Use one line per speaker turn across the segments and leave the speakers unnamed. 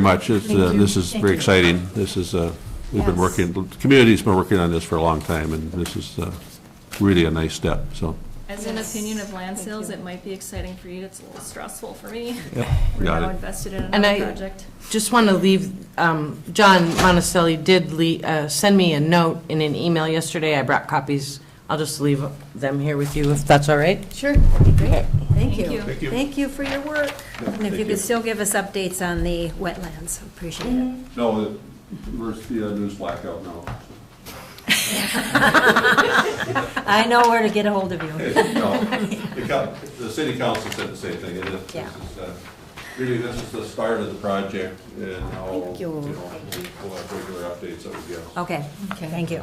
much. It's,
Thank
uh,
you.
This is
Thank
very
you.
exciting. This is, uh, we've been
Yes.
working, the community's been working on this for a long time, and this is uh, really a nice step, so.
As an
Yes.
opinion of land
Thank
sales,
you.
it might be exciting for you, it's a little stressful for me. We're
Got
now
it.
invested in
And
another
I-
project.
Just want to leave, um, John Monticelli did le- uh, send me a note in an email yesterday. I brought copies. I'll just leave them here with you, if that's all right.
Sure, that'd be great. Thank
Thank
you.
you. Thank
Thank you for your work. And if you could still give us updates on the wetlands, appreciate it.
No, where's the uh, news blackout now?
I know where to get a hold of you.
The city council said the same thing, and this
Yeah.
is, uh, really, this is the start of the project, and now,
Thank
you
you.
know, we'll have regular updates that we get.
Okay, thank you.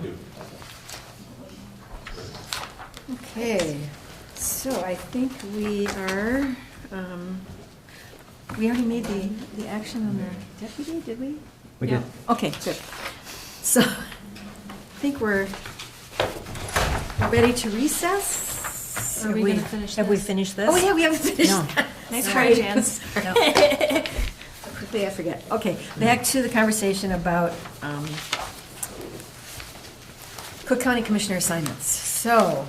Okay, so I think we are, um, we already made the, the action on the deputy, did we?
We did.
Okay, good. So, I think we're we're ready to recess?
Are
Have
we gonna finish
Have we
this?
finished this?
Oh, yeah, we haven't finished.
No.
that.
Nice
Sorry.
try, Jan.
Quickly, I forget. Okay, back to the conversation about um, Cook County Commissioner assignments. So,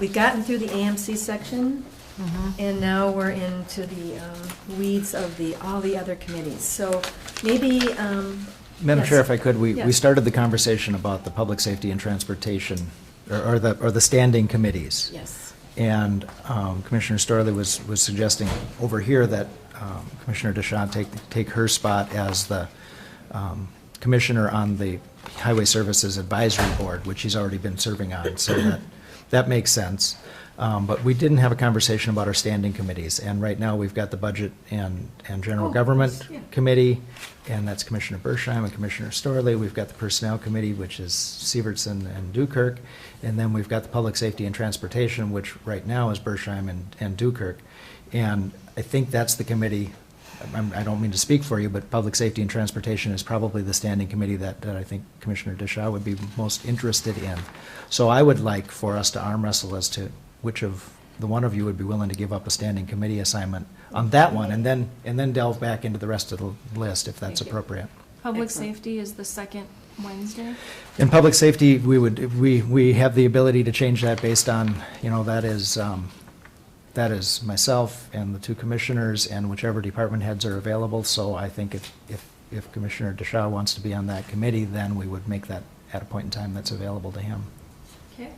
we've gotten through the AMC section,
Mm-hmm.
Mm-hmm.
and now we're into the um, weeds of the, all the other committees. So maybe. um,
Madam
yes.
Chair, if I could, we,
Yeah.
we started the conversation about the public safety and transportation, or- or the, or the standing committees.
Yes.
And um, Commissioner Starley was, was suggesting over here that um, Commissioner DeShawn take, take her spot as the um, commissioner on the Highway Services Advisory Board, which he's already been serving on, so that, that makes sense. Um, But we didn't have a conversation about our standing committees, and right now, we've got the Budget and, and General
Oh,
Government
yeah.
Committee, and that's Commissioner Bershheim and Commissioner Starley. We've got the Personnel Committee, which is Severson and Dukirk. And then we've got the Public Safety and Transportation, which right now is Bershheim and, and Dukirk. And I think that's the committee, I'm- I don't mean to speak for you, but Public Safety and Transportation is probably the standing committee that, that I think Commissioner Dishaw would be most interested in. So I would like for us to arm wrestle as to which of the one of you would be willing to give up a standing committee assignment on that one, and then, and then delve back into the rest of the list if that's appropriate.
Public
Excellent.
safety is the second Wednesday.
In public safety, we would, we, we have the ability to change that based on, you know, that is, um, that is myself and the two commissioners and whichever department heads are available, so I think if, if, if Commissioner DeShaw wants to be on that committee, then we would make that at a point in time that's available to him.
Okay.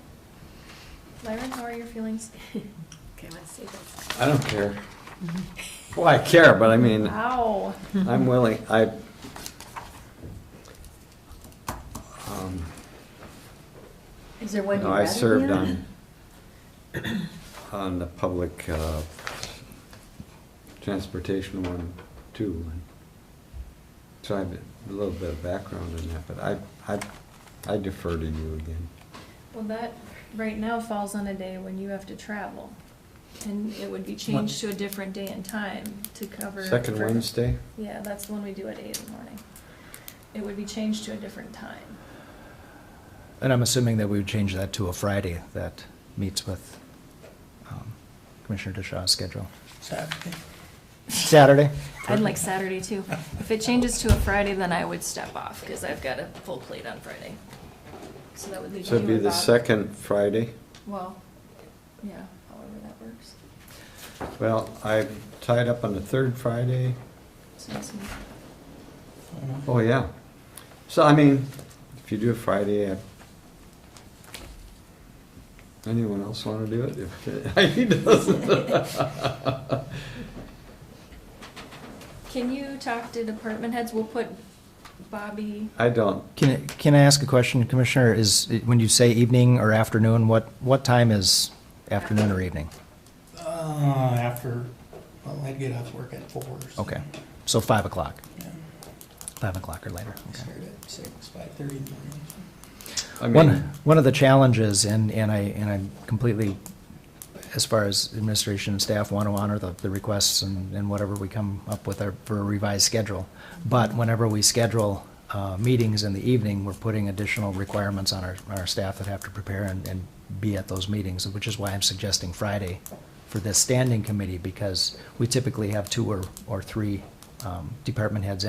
Lyra, how are your feelings?
Okay, let's see this.
I don't care. Well, I care, but I mean,
Wow.
I'm willing, I. um,
Is there one
you
you
know, I
rather be
served
on?
on, on the public uh, transportation one, too. and So I have a little bit of background in that, but I, I I defer to you again.
Well, that, right now falls on a day when you have to travel. And it would be changed to a different day and time to cover.
Second
for-
Wednesday?
Yeah, that's the one we do at eight in the morning. It would be changed to a different time.
And I'm assuming that we would change that to a Friday that meets with, um, Commissioner DeShaw's schedule. Saturday?
I'd like Saturday too. If it changes to a Friday, then I would step off, because I've got a full plate on Friday. So that would leave you
So it'd be the
about-
second Friday.
Well, yeah, however that works.
Well, I'm tied up on the third Friday.
So it's-
Oh, yeah. So, I mean, if you do a Friday, I- anyone else want to do it? If He doesn't.
Can you talk to department heads? We'll put Bobby,
I don't.
Can, I- can I ask a question, Commissioner? Is, when you say evening or afternoon, what, what time is afternoon or evening?
Uh, after, well, I'd get off work at four. so-
Okay, so 5 o'clock,
Yeah,
5 o'clock or later, okay.
Start at six, five thirty in the morning.
I
One,
mean,
one of the challenges, and, and I, and I'm completely, as far as administration and staff want to honor the, the requests and, and whatever we come up with our, for a revised schedule. But whenever we schedule, uh, meetings in the evening, we're putting additional requirements on our, our staff that have to prepare and, and be at those meetings, which is why I'm suggesting Friday for this standing committee, because we typically have two or, or three, um, department heads